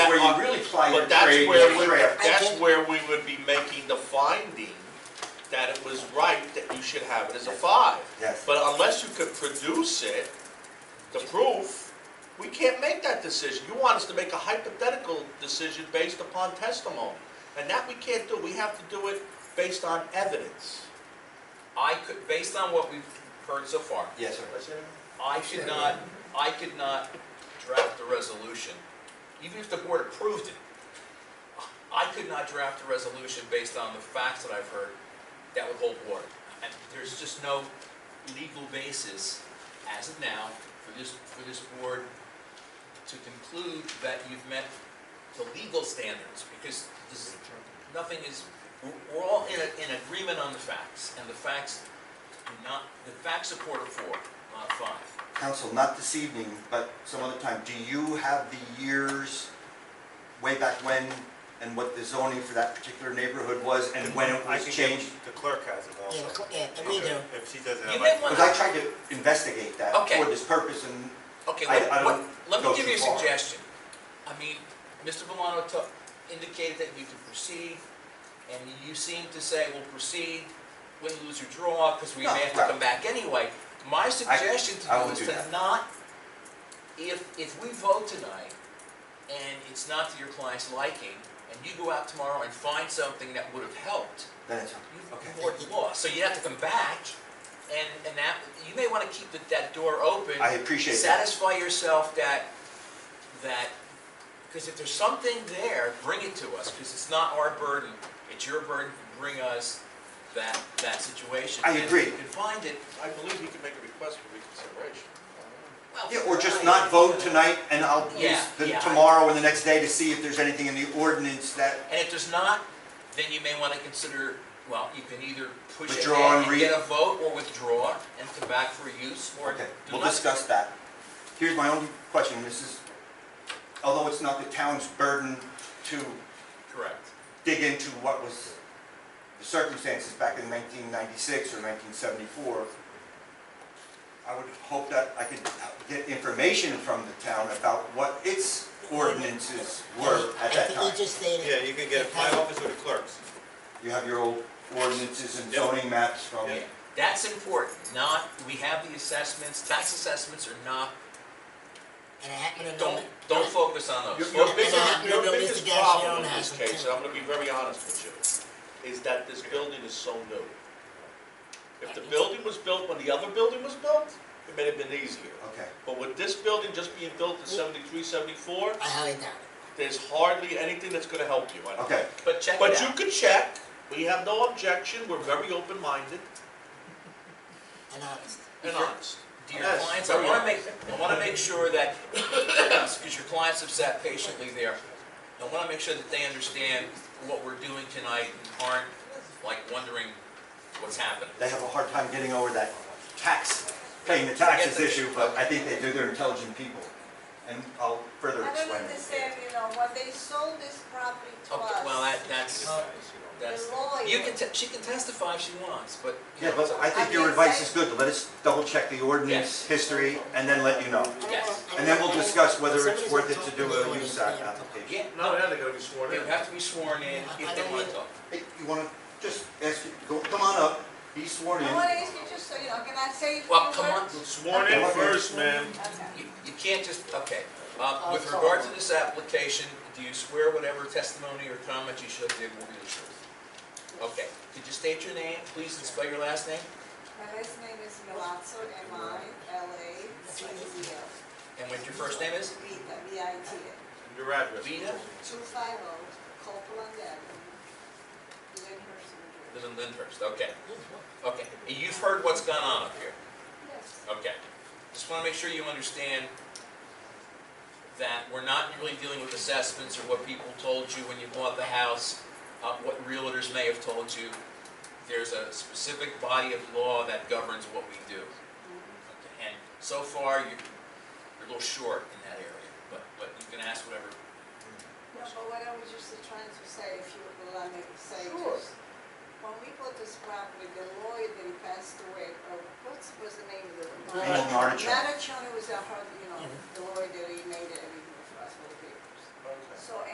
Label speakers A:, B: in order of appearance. A: why you're
B: But that's
A: creating
B: where,
A: a
B: we-
A: draft.
B: that's where we would be making the finding that it was right that you should have it as a five.
A: Yes.
B: But unless you could produce it, the proof, we can't make that decision. You want us to make a hypothetical decision based upon testimony. And that we can't do. We have to do it based on evidence.
C: I could, based on what we've heard so far,
A: Yes, sir.
C: I could not, I could not draft a resolution, even if the board approved it. I could not draft a resolution based on the facts that I've heard that would hold water. And there's just no legal basis as of now for this, for this board to conclude that you've met the legal standards, because this, nothing is, we're, we're all in, a- in agreement on the facts, and the facts do not, the facts support a four, not a five.
A: Council, not this evening, but some other time, do you have the years way back when and what the zoning for that particular neighborhood was and when it
D: I
A: was
D: can get-
A: changed?
D: The clerk has it
E: Yeah,
D: also.
E: cl- yeah, and we do.
D: If she doesn't
C: You
D: have.
C: may
D: it.
C: want-
A: Because I tried to investigate that
C: Okay.
A: for this purpose and
C: Okay,
A: I-
C: let,
A: I
C: what-
A: don't
C: let
A: go
C: me give you a
A: too far.
C: suggestion. I mean, Mr. Valano to- indicated that you could proceed, and you seem to say, well, proceed, win, lose, or draw, because we
A: No,
C: may have to
A: right.
C: come back anyway. My suggestion
A: I
C: to you
A: won't
C: is
A: do
C: to
A: that.
C: not, if, if we vote tonight, and it's not to your client's liking, and you go out tomorrow and find something that would have helped,
A: then it's,
C: You've
A: okay.
C: poured the law, so you have to come back, and, and that, you may wanna keep that, that door open.
A: I appreciate that.
C: Satisfy yourself that, that, because if there's something there, bring it to us, because it's not our burden, it's your burden to bring us that, that situation.
A: I
C: And if
A: agree.
C: you can find it,
B: I believe he can make a request for reconsideration.
C: well.
A: Yeah, or just not vote tonight and I'll use
C: Yeah,
A: the
C: yeah, I-
A: tomorrow and the next day to see if there's anything in the ordinance that
C: And if there's not, then you may wanna consider, well, you can either push
A: Withdraw
C: ahead
A: and re-
C: and get a vote, or withdraw and come back for use, or do
A: Okay,
C: nothing.
A: we'll discuss that. Here's my only question, this is, although it's not the town's burden to
C: Correct.
A: dig into what was the circumstances back in 1996 or 1974, I would hope that I could get information from the town about what its ordinances were at that
E: I think
A: time.
E: he just stated.
D: Yeah, you can get it from my office or the clerk's.
A: You have your old ordinances and
D: Yep.
A: zoning maps from,
D: Yeah.
C: That's important, not, we have the assessments, tax assessments are not,
E: And I happen to know.
C: don't, don't focus on
B: Your,
C: those.
B: your
E: And I
B: biggest,
E: happen to
B: your
E: know Mr.
B: biggest
E: Gassion
B: problem
E: on
B: in
E: that.
B: this case, and I'm gonna be very honest with you, is that this building is so new. If the building was built when the other building was built, it may have been easier.
A: okay.
B: But with this building just being built in seventy-three, seventy-four,
E: I highly doubt it.
B: there's hardly anything that's gonna help you. I don't-
A: Okay,
C: But check
B: But
C: it
B: you
C: out.
B: could check, we have no objection, we're very open-minded
E: And honest.
B: and honest.
C: To your
B: Yes,
C: clients, I
B: very
C: wanna
B: honest.
C: make, I wanna make sure that, because your clients have sat patiently there, I wanna make sure that they understand what we're doing tonight and aren't like wondering what's happening.
A: they have a hard time getting over that tax, paying the taxes
C: Forget the-
A: issue, but I think they do, they're intelligent people. And I'll further
F: I don't
A: explain.
F: understand, you know, when they sold this property to
C: Okay,
F: us.
C: well, that, that's, that's,
F: The lawyer.
C: you can, te- she can testify if she wants, but. you
A: Yeah,
C: know,
A: but I think your advice is good, to let us double check the ordinance
C: Yes.
A: history and then let you know.
E: I don't
C: Yes.
E: wanna- I
A: And
E: don't
A: then we'll
E: wanna-
A: discuss whether
E: somebody's
A: it's worth it
E: gonna
A: to
E: talk
A: do
E: me
A: a
E: when
A: use
E: they-
A: app application.
C: Yeah,
B: No, now they gotta be sworn
C: They
B: in.
C: would have to be sworn in if they want to talk.
A: Hey, you wanna just ask, go, come on up, be sworn in.
F: I want to ask you just so, you know, can I say? a few
C: Well, come on,
F: words?
B: Sworn
A: in first,
B: ma'am.
F: Okay.
C: you, you can't just, okay. Uh, With regard to this application, do you swear whatever testimony or comment you shall give will be the truth? Okay, could you state your name, please, and spell your last name?
F: My last name is Milazzo, M I L A Z Z O.
C: And what your first name is?
F: Vita, V I T A,
D: Your address.
C: Vita
F: two five oh, Copeland Avenue, Lyndhurst, New Jersey.
C: Live in Lyndhurst, okay, okay. And you've heard what's gone on up here,
F: Yes,
C: okay. Just want to make sure you understand that we're not really dealing with assessments or what people told you when you bought the house, uh, what realtors may have told you. There's a specific body of law that governs what we do. And so far, you're, you're a little short in that area, but, but you can ask whatever.
F: no, but what I was just trying to say, if you would allow me to say.
B: Sure.
F: just, When we bought this property, the lawyer that he passed away, or what's, what's the name of the? lawyer?
A: Alan Artichoke.
F: Madam Chona was our, you know, the lawyer that he made everything for us, for the papers. So